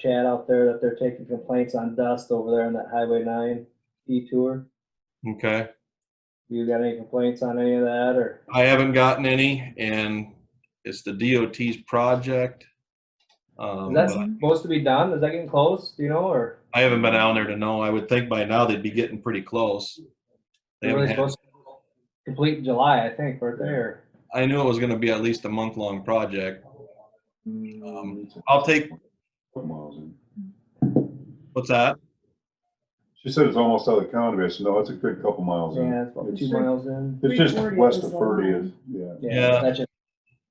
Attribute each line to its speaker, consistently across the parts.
Speaker 1: Chad out there that they're taking complaints on dust over there on that Highway nine detour.
Speaker 2: Okay.
Speaker 1: You got any complaints on any of that or?
Speaker 2: I haven't gotten any and it's the DOT's project. Um,
Speaker 1: Is that
Speaker 2: but
Speaker 1: supposed to be done? Is that getting close, do you know, or?
Speaker 2: I haven't been down there to know. I would think by now they'd be getting pretty close. They
Speaker 1: They're really
Speaker 2: haven't had-
Speaker 1: supposed to complete in July, I think, right there.
Speaker 2: I knew it was gonna be at least a month-long project. Um, I'll take,
Speaker 3: Put miles in.
Speaker 2: what's that?
Speaker 3: She said it's almost out of the county, I said, no, it's a good couple miles in.
Speaker 1: Yeah, it's about two miles in.
Speaker 3: It's just
Speaker 4: 340
Speaker 3: west
Speaker 4: is
Speaker 3: of
Speaker 1: uh,
Speaker 4: the
Speaker 3: Ferdy,
Speaker 4: line.
Speaker 3: yeah.
Speaker 2: Yeah.
Speaker 1: that's just-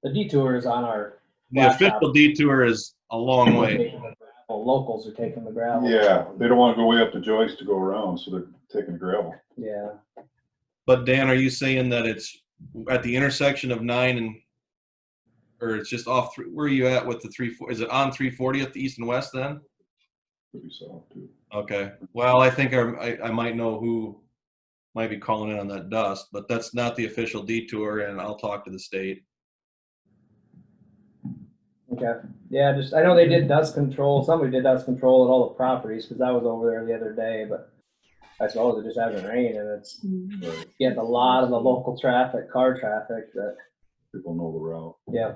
Speaker 1: The detour is on our.
Speaker 2: The official detour is a long way.
Speaker 1: Well, Locals are taking the gravel.
Speaker 3: Yeah, they don't wanna go way up to Joyce to go around, so they're taking gravel.
Speaker 1: Yeah,
Speaker 2: But Dan, are you saying that it's at the intersection of nine and, or it's just off, thr- where are you at with the three, four- is it on three forty at the east and west then?
Speaker 3: Could be south too.
Speaker 2: Okay, well, I think I'm- I, I might know who might be calling in on that dust, but that's not the official detour and I'll talk to the state.
Speaker 1: okay. Yeah, just, I know they did dust control, somebody did dust control at all the properties, because I was over there the other day, but I suppose it just hasn't rained, and it's
Speaker 4: Mm.
Speaker 3: Right.
Speaker 1: getting a lot of the local traffic, car traffic, that,
Speaker 3: People know the route.
Speaker 1: yeah.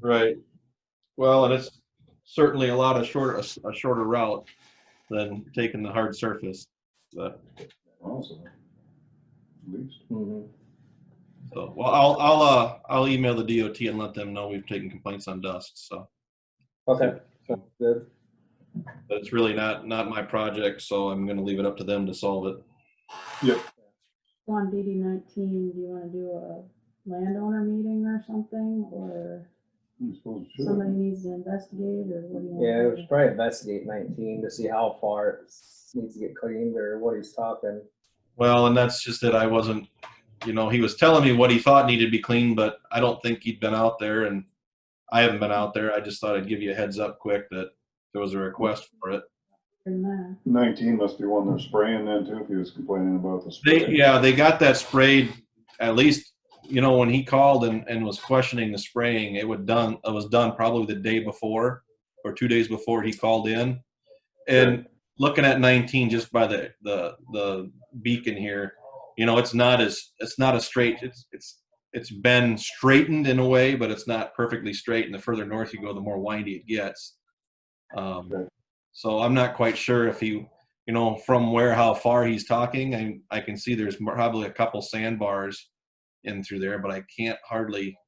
Speaker 2: Right. Well, and it's certainly a lot of shorter, a shorter route than taking the hard surface,
Speaker 3: Miles in. At least.
Speaker 1: mhm.
Speaker 2: So, well, I'll, I'll, uh, I'll email the DOT and let them know we've taken complaints on dust, so.
Speaker 1: Okay, sounds good.
Speaker 2: But it's really not, not my project, so I'm gonna leave it up to them to solve it.
Speaker 4: On DD nineteen, do you wanna do a landowner meeting or something, or
Speaker 3: I suppose it should.
Speaker 4: somebody needs to investigate, or what do you?
Speaker 1: Yeah,
Speaker 4: want
Speaker 1: we should probably investigate nineteen to see how far it needs to get cleaned, or what he's talking.
Speaker 2: Well, and that's just it. I wasn't, you know, he was telling me what he thought needed to be cleaned, but I don't think he'd been out there and I haven't been out there. I just thought I'd give you a heads up quick that there was a request for it.
Speaker 4: From that,
Speaker 3: Nineteen must be one they're spraying then too, if he was complaining about the
Speaker 2: They,
Speaker 3: spray.
Speaker 2: yeah, they got that sprayed, at least, you know, when he called and, and was questioning the spraying, it would done, it was done probably the day before or two days before he called in. And looking at nineteen, just by the, the, the beacon here, you know, it's not as, it's not a straight, it's, it's, it's been straightened in a way, but it's not perfectly straight. And the further north you go, the more windy it gets. Um,
Speaker 3: Right.
Speaker 2: so I'm not quite sure if he, you know, from where, how far he's talking, I, I can see there's mo- probably a couple sandbars in through there, but I can't hardly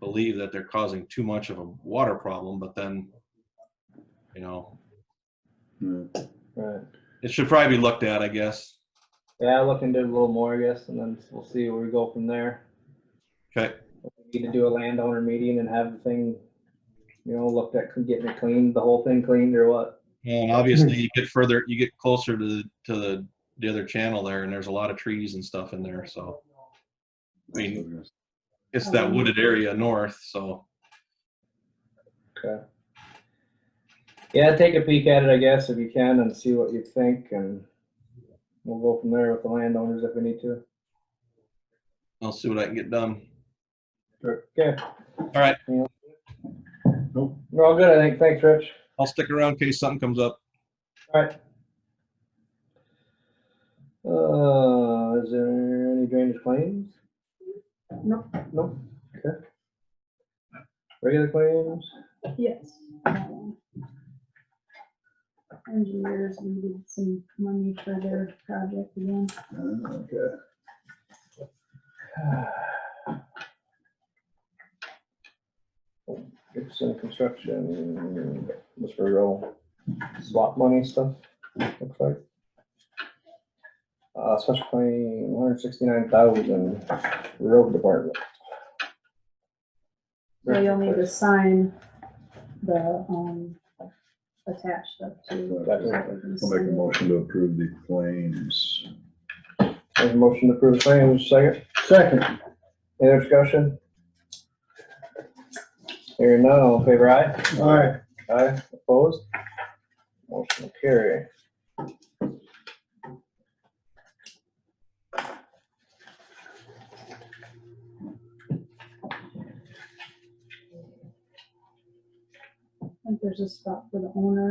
Speaker 2: believe that they're causing too much of a water problem, but then, you know,
Speaker 3: Yeah.
Speaker 1: Right.
Speaker 2: it should probably be looked at, I guess.
Speaker 1: Yeah, I'll look into it a little more, I guess, and then we'll see where we go from there.
Speaker 2: Okay,
Speaker 1: We Need to do a landowner meeting and have the thing, you know, looked at getting it cleaned, the whole thing cleaned or what.
Speaker 2: and obviously you get further, you get closer to, the to the, the other channel there, and there's a lot of trees and stuff in there, so. I mean, it's that wooded area north, so,
Speaker 1: Okay. Yeah, take a peek at it, I guess, if you can and see what you think and we'll go from there with the landowners if we need to.
Speaker 2: I'll see what I can get done.
Speaker 1: Okay,
Speaker 2: All right,
Speaker 3: Nope.
Speaker 1: we're all good, I think. Thanks, Rich.
Speaker 2: I'll stick around in case something comes up.
Speaker 1: All right. Uh, is there any drainage claims?
Speaker 4: Nope.
Speaker 1: Nope. Okay. Regular claims?
Speaker 4: yes. that one. Engineers needed some money for their project again.
Speaker 3: Ah, Okay.
Speaker 1: Gibson Construction, Mr. Rowe, swap money stuff, looks like. Uh, special claim, one hundred sixty-nine thousand, road department.
Speaker 4: So you'll need to sign the, um, attached stuff to.
Speaker 1: Gotcha.
Speaker 3: I'll make a motion to approve the claims.
Speaker 1: There's a motion to approve the claims, second? Second. Any other discussion? Hearing none, all in favor, aye? Aye. Aye, opposed? Motion will carry.
Speaker 4: And there's a spot for the owner